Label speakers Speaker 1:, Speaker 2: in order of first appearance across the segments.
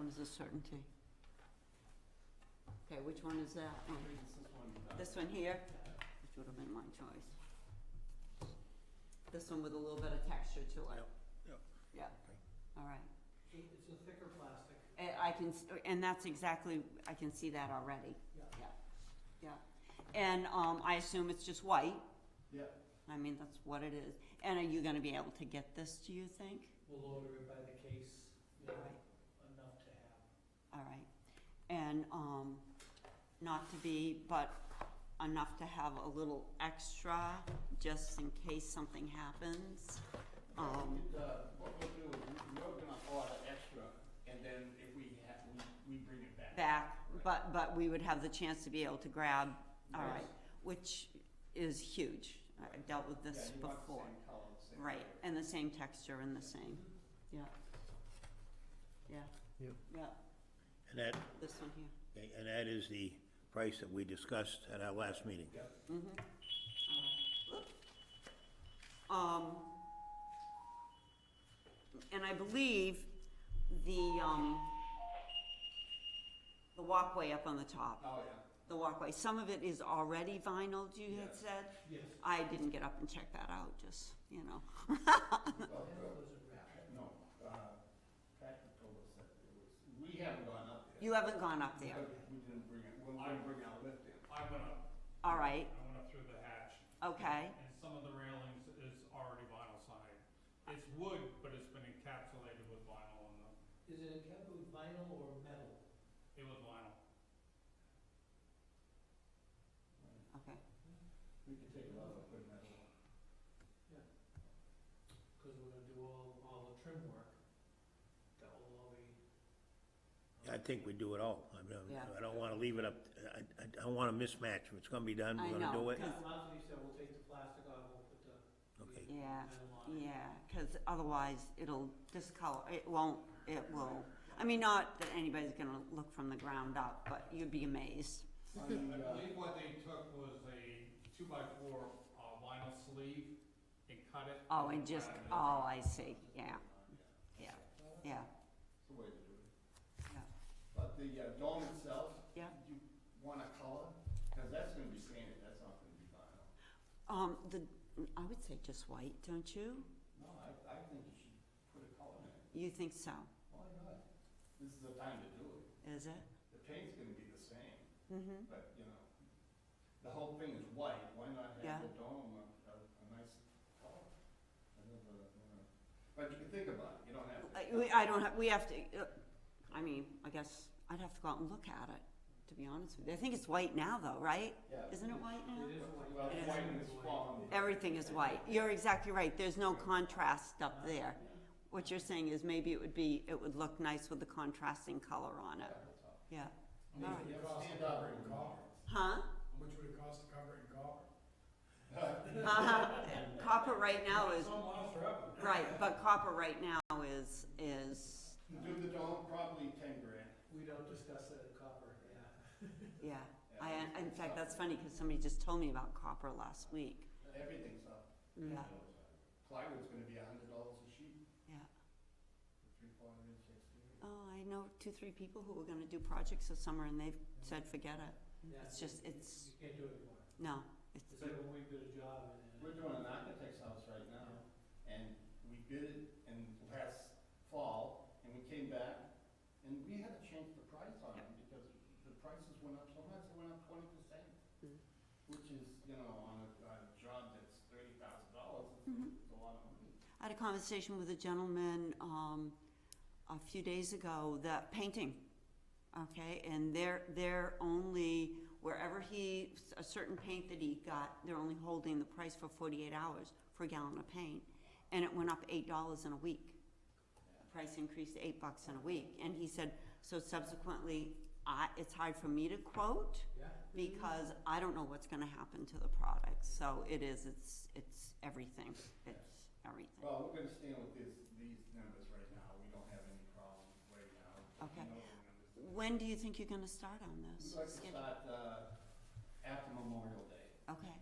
Speaker 1: is a certainty. Okay, which one is that one? This one here, which would have been my choice. This one with a little bit of texture to it.
Speaker 2: Yep, yep.
Speaker 1: Yeah, all right.
Speaker 3: It's a thicker plastic.
Speaker 1: And I can, s- and that's exactly, I can see that already.
Speaker 3: Yeah.
Speaker 1: Yeah, yeah. And, um, I assume it's just white,
Speaker 3: Yeah.
Speaker 1: I mean, that's what it is. And are you gonna be able to get this, do you think?
Speaker 3: We'll order it by the case, you know,
Speaker 1: Right.
Speaker 3: enough to have.
Speaker 1: All right, and, um, not to be, but enough to have a little extra, just in case something happens. Um,
Speaker 4: Uh, What we'll do is, we- we're gonna order extra, and then if we have, we, we bring it back.
Speaker 1: back, but, but we would have the chance to be able to grab, all right, which is huge. I dealt with
Speaker 4: Yeah,
Speaker 1: this
Speaker 4: you want the
Speaker 1: before.
Speaker 4: same color, the same
Speaker 1: Right,
Speaker 4: color.
Speaker 1: and the same texture and the same, yeah. Yeah.
Speaker 2: Yep.
Speaker 1: Yeah,
Speaker 2: And that,
Speaker 1: this one here.
Speaker 2: and that is the price that we discussed at our last meeting.
Speaker 1: Um, and I believe the, um, the walkway up on the top,
Speaker 4: Oh, yeah.
Speaker 1: the walkway, some of it is already vinyl, you had
Speaker 4: Yes.
Speaker 1: said?
Speaker 3: Yes.
Speaker 1: I didn't get up and check that out, just, you know,
Speaker 4: Well,
Speaker 3: That was a wrap.
Speaker 4: No, uh, Patrick told us that it was, we haven't gone up there.
Speaker 1: you haven't gone up there,
Speaker 4: But We didn't bring it, we're gonna bring our lift in.
Speaker 5: I went up,
Speaker 1: all right,
Speaker 5: I went up through the hatch,
Speaker 1: okay,
Speaker 5: and some of the railings is already vinyl siding. It's wood, but it's been encapsulated with vinyl on them.
Speaker 3: Is it a cap of vinyl or metal?
Speaker 5: It was vinyl.
Speaker 1: okay.
Speaker 4: We can take it off and put it in.
Speaker 3: Cause we're gonna do all, all the trim work. That will all be.
Speaker 2: I think we do it all. I mean,
Speaker 1: Yeah.
Speaker 2: I don't wanna leave it up, I, I, I don't want a mismatch. If it's gonna be done,
Speaker 1: I
Speaker 2: we're gonna
Speaker 1: know,
Speaker 2: do it.
Speaker 3: Yeah, Anthony said we'll take the plastic off, we'll put the. the
Speaker 2: Okay.
Speaker 1: Yeah,
Speaker 3: metal on it.
Speaker 1: Yeah, because otherwise it'll discolor, it won't, it will, I mean, not that anybody's gonna look from the ground up, but you'd be amazed.
Speaker 5: I believe what they took was a two-by-four uh, vinyl sleeve and cut it.
Speaker 1: Oh, and just,
Speaker 5: around it.
Speaker 1: oh, I see, yeah, yeah, yeah,
Speaker 4: It's the way to do it.
Speaker 1: yeah,
Speaker 4: But the uh, dome itself,
Speaker 1: yeah.
Speaker 4: you want a color, cause that's gonna be painted, that's not gonna be vinyl.
Speaker 1: Um, the, I would say just white, don't you?
Speaker 4: No, I, I think you should put a color in it.
Speaker 1: You think so,
Speaker 4: Why not? This is the time to do it.
Speaker 1: is it?
Speaker 4: The paint's gonna be the same,
Speaker 1: Mm-hmm,
Speaker 4: but, you know, the whole thing is white, why not
Speaker 1: Yeah.
Speaker 4: have the dome a, a, a nice color? I don't know, you know. But you can think about it, you don't have to.
Speaker 1: I, Uh, we, I don't have, we have to, uh, I mean, I guess, I'd have to go out and look at it, to be honest with you, I think it's white now though, right?
Speaker 4: Yeah.
Speaker 1: Isn't it white now?
Speaker 3: It is white.
Speaker 4: Well,
Speaker 1: It
Speaker 4: it's
Speaker 1: is.
Speaker 4: white in its form.
Speaker 1: Everything is white. You're exactly right. There's no contrast up there. What you're saying is maybe it would be, it would look nice with the contrasting color on it. Yeah. All right.
Speaker 4: You have a stand up and
Speaker 1: Huh?
Speaker 6: How much would it cost to cover it in copper?
Speaker 1: Uh-huh. Copper right now is,
Speaker 6: Some miles forever.
Speaker 1: right, but copper right now is, is,
Speaker 4: Do the dome, probably ten grand.
Speaker 3: We don't discuss that in copper, yeah.
Speaker 1: yeah. I, in fact, that's funny because somebody just told me about copper last week.
Speaker 4: Everything's up.
Speaker 1: Yeah,
Speaker 4: Plywood's gonna be a hundred dollars a sheet,
Speaker 1: yeah.
Speaker 4: three, four hundred and sixty.
Speaker 1: Oh, I know two, three people who were gonna do projects this summer and they've said, forget it.
Speaker 3: Yeah,
Speaker 1: It's just-
Speaker 3: you-
Speaker 1: it's-
Speaker 3: You can't do it anymore.
Speaker 1: No, it's,
Speaker 3: It's like when we did a job and.
Speaker 4: We're doing an architect's house right now, and we bid it in last fall, and we came back, and we had to change the price on it, because the prices went up so much, they went up twenty percent.
Speaker 1: Mm.
Speaker 4: Which is, you know, on a, on a job that's thirty thousand dollars, it's a lot of money.
Speaker 1: I had a conversation with a gentleman, um, a few days ago, that painting, okay, and they're, they're only, wherever he, a certain paint that he got, they're only holding the price for forty-eight hours for a gallon of paint, and it went up eight dollars in a week. Price increased to eight bucks in a week, and he said, so subsequently, I, it's hard for me to quote,
Speaker 3: Yeah.
Speaker 1: because I don't know what's gonna happen to the product, so it is, it's, it's everything, it's everything.
Speaker 4: Well, we're gonna stand with this, these numbers right now, we don't have any problems right now. We
Speaker 1: Okay.
Speaker 4: know the numbers.
Speaker 1: When do you think you're gonna start on this?
Speaker 4: We'd like to
Speaker 1: Skip-
Speaker 4: start, uh, after Memorial Day.
Speaker 1: Okay,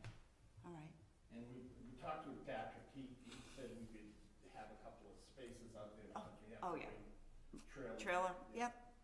Speaker 1: all right,
Speaker 4: And we, we talked with Patrick, he, he said we could have a couple of spaces out there, but we have
Speaker 1: oh,
Speaker 4: to
Speaker 1: yeah.
Speaker 4: bring trailers.
Speaker 1: trailer, yep,